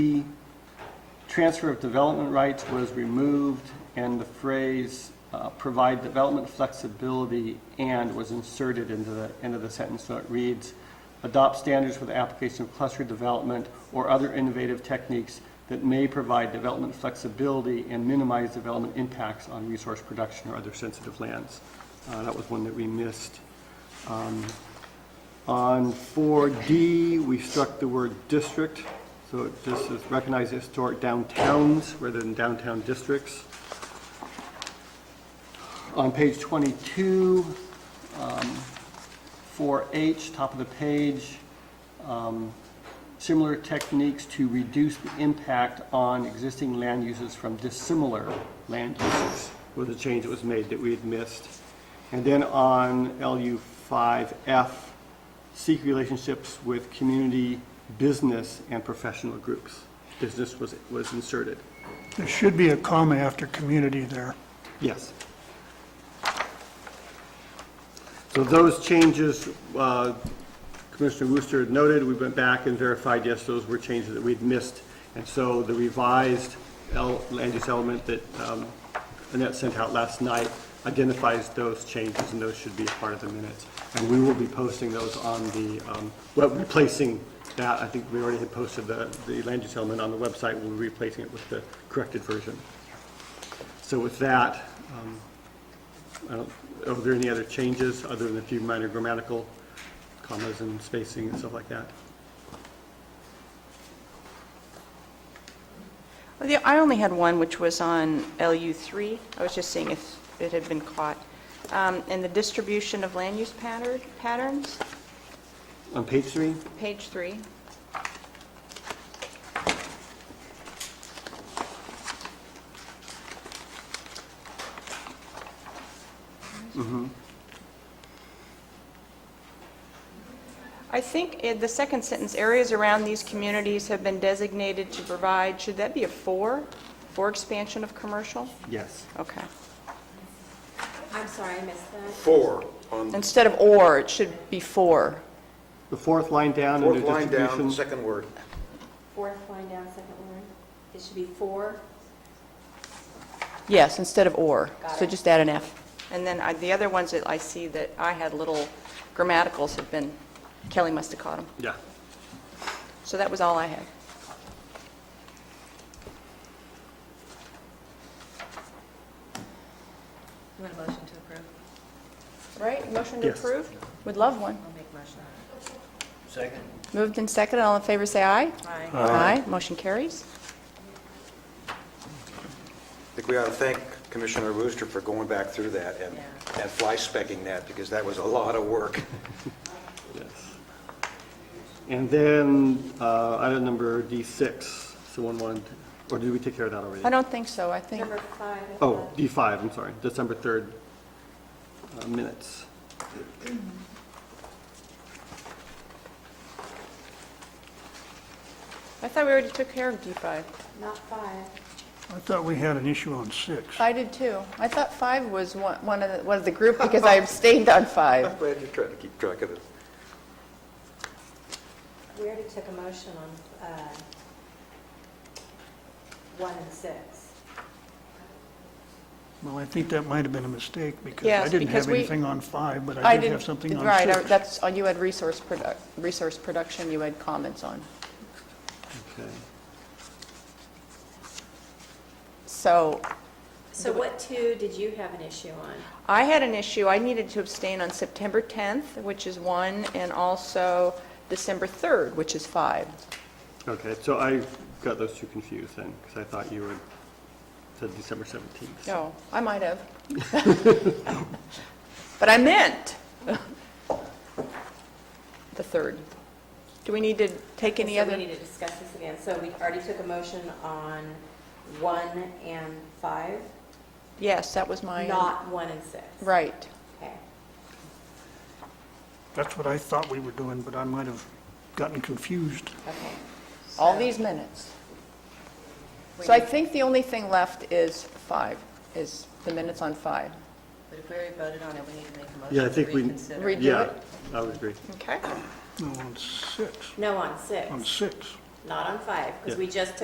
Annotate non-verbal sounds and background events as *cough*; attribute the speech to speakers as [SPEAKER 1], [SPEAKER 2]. [SPEAKER 1] The transfer of development rights was removed, and the phrase uh, "provide development flexibility and" was inserted into the end of the sentence, so it reads, "adopt standards for the application of cluster development or other innovative techniques that may provide development flexibility and minimize development impacts on resource production or other sensitive lands." Uh, That was one that we missed. On 4D, we struck the word district, so it just says recognize historic downtowns rather than downtown districts. On page 22, um, 4H, top of the page, um, similar techniques to reduce the impact on existing land uses from dissimilar land uses was a change that was made that we had missed. And then on LU 5F, seek relationships with community, business, and professional groups. Business was, was inserted.
[SPEAKER 2] There should be a comma after community there.
[SPEAKER 1] Yes. So those changes, uh, Commissioner Wooster had noted, we went back and verified, yes, those were changes that we'd missed. And so the revised el- land use element that um, Annette sent out last night identifies those changes, and those should be a part of the minutes. And we will be posting those on the, um, well, replacing that, I think we already had posted the the land use element on the website, we'll be replacing it with the corrected version. So with that, um, I don't- are there any other changes, other than a few minor grammatical commas and spacing and stuff like that?
[SPEAKER 3] Well, the- I only had one, which was on LU3. I was just seeing if it had been caught. Um, And the distribution of land use patter- patterns,
[SPEAKER 1] On page three,
[SPEAKER 3] page three. I think in the second sentence, areas around these communities have been designated to provide, should that be a four? For expansion of commercial?
[SPEAKER 1] yes.
[SPEAKER 3] Okay.
[SPEAKER 4] I'm sorry, I missed that.
[SPEAKER 5] four on the
[SPEAKER 3] Instead of or, it should be for.
[SPEAKER 1] The fourth line down under
[SPEAKER 5] fourth line down,
[SPEAKER 1] distribution.
[SPEAKER 5] second word.
[SPEAKER 4] Fourth line down, second word. It should be four.
[SPEAKER 6] Yes, instead of or.
[SPEAKER 4] Got
[SPEAKER 6] So
[SPEAKER 4] it.
[SPEAKER 6] just add an F.
[SPEAKER 3] And then I- the other ones that I see that I had little grammaticals have been, Kelly must have caught them.
[SPEAKER 1] Yeah.
[SPEAKER 3] So that was all I had.
[SPEAKER 7] You want a motion to approve?
[SPEAKER 6] Right, motion
[SPEAKER 1] to Yes. approve?
[SPEAKER 6] Would love one.
[SPEAKER 7] I'll make motion.
[SPEAKER 6] Moved and seconded, all in favor say aye.
[SPEAKER 7] Aye.
[SPEAKER 6] Aye. Motion carries.
[SPEAKER 5] I think we ought to thank Commissioner Rooster for going back through that and,
[SPEAKER 7] Yeah.
[SPEAKER 5] and fly-specking that, because that was a lot of work.
[SPEAKER 1] Yes. And then, uh, item number D6, someone wanted, or did we take care of that already?
[SPEAKER 6] I don't think so, I think,
[SPEAKER 4] Number five. I
[SPEAKER 1] Oh,
[SPEAKER 4] thought.
[SPEAKER 1] D5, I'm sorry, December 3rd, uh, minutes.
[SPEAKER 3] I thought we already took care of D5.
[SPEAKER 4] uh, Not five.
[SPEAKER 2] I thought we had an issue on six.
[SPEAKER 6] I did too. I thought five was one one of the, one of the group because I abstained on
[SPEAKER 5] I'm
[SPEAKER 6] five.
[SPEAKER 5] glad you tried to keep track of it.
[SPEAKER 4] We already took a motion on uh, one and six.
[SPEAKER 2] Well, I think that might have been a mistake because I
[SPEAKER 6] Yes,
[SPEAKER 2] didn't
[SPEAKER 6] because
[SPEAKER 2] have
[SPEAKER 6] we-
[SPEAKER 2] anything on five, but *laughs* I did have something on
[SPEAKER 6] Right, I-
[SPEAKER 2] six.
[SPEAKER 6] that's, oh, you had resource produc, resource production, you had comments on.
[SPEAKER 1] Okay.
[SPEAKER 6] So
[SPEAKER 4] So what two did you have an issue on?
[SPEAKER 3] I had an issue, I needed to abstain on September 10th, which is one, and also December 3rd, which is five.
[SPEAKER 1] Okay, so I got those two confused then, because I thought you were, said December 17th.
[SPEAKER 3] Oh.
[SPEAKER 6] No, I might
[SPEAKER 3] *laughs*
[SPEAKER 6] have. But I meant the third. Do we need to take any
[SPEAKER 4] So we
[SPEAKER 6] other?
[SPEAKER 4] need to discuss this again. So we already took a motion on one and five,
[SPEAKER 6] Yes, that was my,
[SPEAKER 4] not one and six.
[SPEAKER 6] right.
[SPEAKER 4] Okay.
[SPEAKER 2] That's what I thought we were doing, but I might have gotten confused.
[SPEAKER 4] Okay.
[SPEAKER 6] All these minutes. So I think the only thing left is five, is the minutes on five.
[SPEAKER 7] But if we already voted on it, we need to make a
[SPEAKER 1] Yeah, I
[SPEAKER 7] motion
[SPEAKER 1] think
[SPEAKER 7] to
[SPEAKER 1] we.
[SPEAKER 7] reconsider.
[SPEAKER 6] Redo
[SPEAKER 1] Yeah,
[SPEAKER 6] it?
[SPEAKER 1] I would agree.
[SPEAKER 3] Okay.
[SPEAKER 2] No, on six,
[SPEAKER 4] No, on six.
[SPEAKER 2] on six.
[SPEAKER 4] not on five, because we just took